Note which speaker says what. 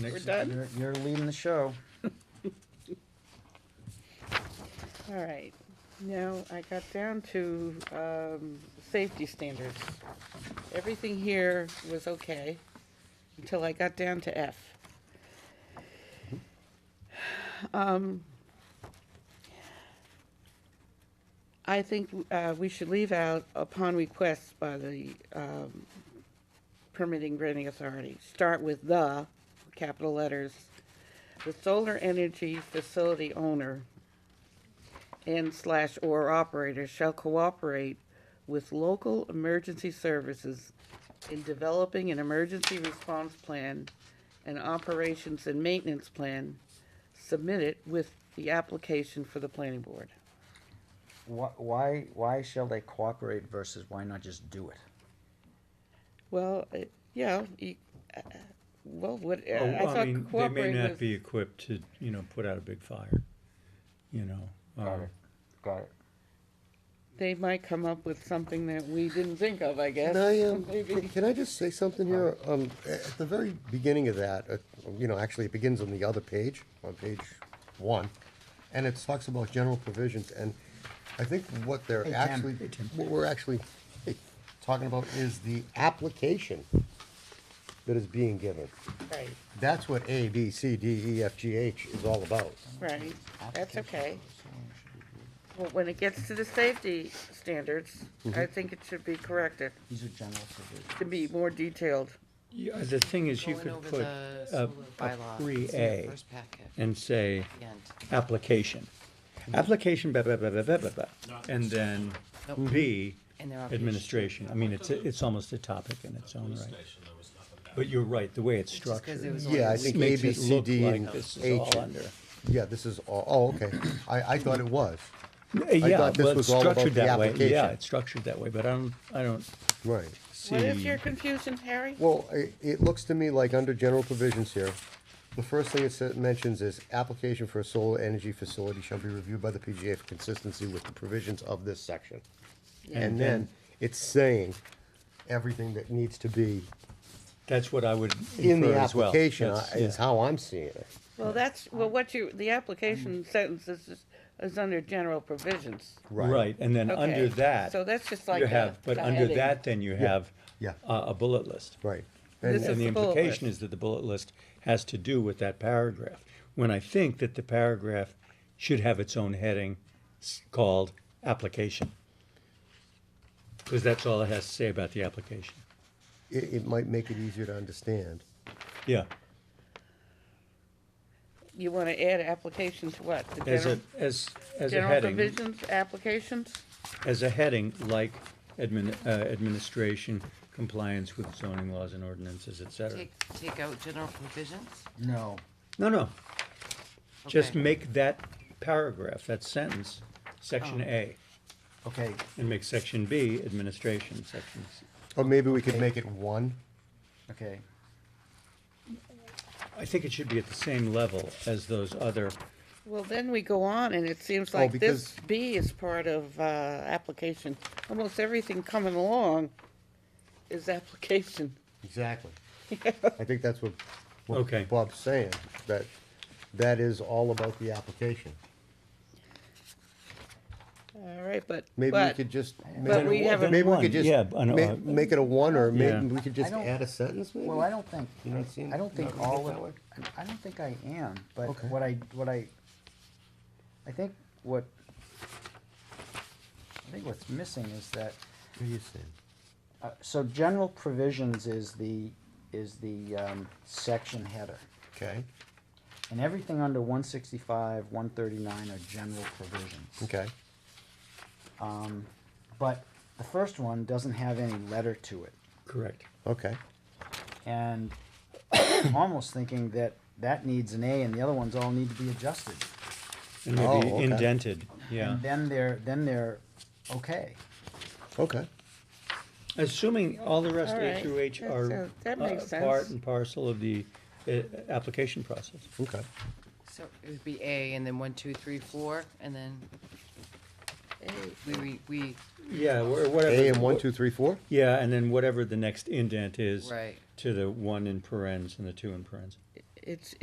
Speaker 1: Next,
Speaker 2: done?
Speaker 1: You're, you're leading the show.
Speaker 2: All right, now I got down to, um, safety standards. Everything here was okay until I got down to F. Um, I think, uh, we should leave out upon request by the, um, permitting granting authority. Start with the, capital letters, the solar energy facility owner and slash or operator shall cooperate with local emergency services in developing an emergency response plan and operations and maintenance plan submitted with the application for the planning board.
Speaker 1: Why, why, why shall they cooperate versus why not just do it?
Speaker 2: Well, uh, yeah, you- uh, uh, well, what, uh,
Speaker 3: Oh,
Speaker 2: I
Speaker 3: I
Speaker 2: thought
Speaker 3: mean, they may
Speaker 2: cooperate
Speaker 3: not
Speaker 2: was,
Speaker 3: be equipped to, you know, put out a big fire, you know. um,
Speaker 1: Got
Speaker 3: or-
Speaker 1: it, got it.
Speaker 2: they might come up with something that we didn't think of, I guess.
Speaker 4: Can I, um,
Speaker 2: Maybe.
Speaker 4: can- can I just say something here? Um, a- at the very beginning of that, uh, you know, actually it begins on the other page, on page one, and it talks about general provisions, and I think what they're
Speaker 1: Hey, Tim.
Speaker 4: actually,
Speaker 1: Hey, Tim.
Speaker 4: what we're actually talking about is the application that is being given.
Speaker 2: Right,
Speaker 4: That's what A, B, C, D, E, F, G, H is all about.
Speaker 2: right, that's okay.
Speaker 1: Someone should review it.
Speaker 2: Well, when it gets to the safety standards, I
Speaker 3: Mm-hmm.
Speaker 2: think it should be corrected
Speaker 1: These are general provisions.
Speaker 2: to be more detailed.
Speaker 3: Yeah, the thing is, you
Speaker 5: Going
Speaker 3: could
Speaker 5: over
Speaker 3: put
Speaker 5: the
Speaker 3: a,
Speaker 5: solar
Speaker 3: a
Speaker 5: bylaw. It's in your
Speaker 3: pre-A
Speaker 5: first packet
Speaker 3: and say,
Speaker 5: at the end.
Speaker 3: application. Application, blah, blah, blah, blah, blah, blah, blah, and then
Speaker 5: Nope.
Speaker 3: B,
Speaker 5: And they're on page-
Speaker 3: administration. I mean, it's, a- it's almost a topic in its own
Speaker 6: police
Speaker 3: right.
Speaker 6: station, there was nothing bad.
Speaker 3: But you're right, the way it's
Speaker 5: It's just 'cause
Speaker 3: structured.
Speaker 5: it was
Speaker 4: Yeah, I
Speaker 5: This
Speaker 4: think A,
Speaker 3: makes
Speaker 4: B,
Speaker 3: it
Speaker 4: C,
Speaker 3: look
Speaker 4: D,
Speaker 3: like
Speaker 4: and
Speaker 3: this is
Speaker 4: H.
Speaker 3: all under.
Speaker 4: Yeah, this is all, oh, okay. I, I thought it was.
Speaker 3: Yeah,
Speaker 4: thought this
Speaker 3: well, it's
Speaker 4: was all about
Speaker 3: structured
Speaker 4: the
Speaker 3: that way. Yeah,
Speaker 4: application.
Speaker 3: it's structured that way, but I don't, I don't
Speaker 4: Right.
Speaker 3: see.
Speaker 2: What is your confusion, Harry?
Speaker 4: Well, it, it looks to me like under general provisions here, the first thing it sa- mentions is application for a solar energy facility shall be reviewed by the PGA for consistency with the provisions of this section. And then it's saying everything that needs to be
Speaker 3: That's what I would
Speaker 4: in
Speaker 3: infer
Speaker 4: the
Speaker 3: as well.
Speaker 4: application uh,
Speaker 3: Yes,
Speaker 4: is
Speaker 3: yeah.
Speaker 4: how I'm seeing it.
Speaker 2: Well, that's, well, what you, the application
Speaker 3: Mm.
Speaker 2: sentence is, is- is under general provisions.
Speaker 3: Right, and then under
Speaker 2: Okay,
Speaker 3: that,
Speaker 2: So that's just like
Speaker 3: you
Speaker 2: a
Speaker 3: have, but
Speaker 2: a
Speaker 3: under
Speaker 2: heading.
Speaker 3: that, then you have uh,
Speaker 4: yeah.
Speaker 3: a a bullet list.
Speaker 4: Right.
Speaker 2: This
Speaker 3: And
Speaker 2: is
Speaker 3: the
Speaker 2: the bullet
Speaker 3: implication
Speaker 2: list.
Speaker 3: is that the bullet list has to do with that paragraph, when I think that the paragraph should have its own heading s- called application. Because that's all it has to say about the application.
Speaker 4: It, it might make it easier to understand.
Speaker 3: Yeah,
Speaker 2: You want to add application to what? The
Speaker 3: as a,
Speaker 2: general-
Speaker 3: as, as a
Speaker 2: General
Speaker 3: heading,
Speaker 2: provisions, applications?
Speaker 3: as a heading, like admin, uh, administration, compliance with zoning laws and ordinances, et cetera.
Speaker 5: Take, take out general provisions?
Speaker 1: No,
Speaker 3: No, no. Just
Speaker 5: Okay.
Speaker 3: make that paragraph, that sentence, section
Speaker 5: Oh.
Speaker 3: A,
Speaker 1: okay,
Speaker 3: and make section B administration sections.
Speaker 4: Or maybe we could make it one.
Speaker 1: okay.
Speaker 3: I think it should be at the same level as those other,
Speaker 2: Well, then we go on and it seems
Speaker 4: Oh,
Speaker 2: like this
Speaker 4: because-
Speaker 2: B is part of, uh, application. Almost everything coming along is application.
Speaker 4: Exactly. I think that's what,
Speaker 3: Okay.
Speaker 4: what Bob's saying, that, that is all about the application.
Speaker 2: All right, but,
Speaker 4: Maybe we
Speaker 2: but,
Speaker 4: could just.
Speaker 2: But we have a-
Speaker 4: Maybe we
Speaker 3: One,
Speaker 4: could just
Speaker 3: yeah, I know,
Speaker 4: ma-
Speaker 3: uh,
Speaker 4: make it a one, or
Speaker 3: Yeah.
Speaker 4: maybe we could just
Speaker 1: I don't-
Speaker 4: add a sentence, maybe?
Speaker 1: Well, I don't think,
Speaker 4: You don't seem-
Speaker 1: I don't think
Speaker 4: not
Speaker 1: all
Speaker 4: that
Speaker 1: of,
Speaker 4: way?
Speaker 1: I don't think I am, but
Speaker 4: Okay.
Speaker 1: what I, what I, I think what, I think what's missing is that,
Speaker 4: What do you say?
Speaker 1: uh, so general provisions is the, is the, um, section header.
Speaker 4: Okay,
Speaker 1: And everything under one sixty-five, one thirty-nine are general provisions.
Speaker 4: okay,
Speaker 1: Um, but the first one doesn't have any letter to it.
Speaker 3: correct.
Speaker 4: okay.
Speaker 1: And I'm almost thinking that that needs an A and the other ones all need to be adjusted.
Speaker 3: And
Speaker 4: Oh,
Speaker 3: maybe
Speaker 4: okay.
Speaker 3: indented, yeah.
Speaker 1: And then they're, then they're okay.
Speaker 4: Okay,
Speaker 3: Assuming all the rest
Speaker 2: All
Speaker 3: A
Speaker 2: right,
Speaker 3: through H
Speaker 2: that
Speaker 3: are
Speaker 2: sounds- that
Speaker 3: uh,
Speaker 2: makes
Speaker 3: part
Speaker 2: sense.
Speaker 3: and parcel of the, uh, application process.
Speaker 4: okay.
Speaker 5: So it would be A and then one, two, three, four, and then we, we, we,
Speaker 3: Yeah, or whatever.
Speaker 4: A and one, two, three, four?
Speaker 3: Yeah, and then whatever the next indent is.
Speaker 5: Right.
Speaker 3: To the one in parentheses and the two in parentheses.
Speaker 2: it's,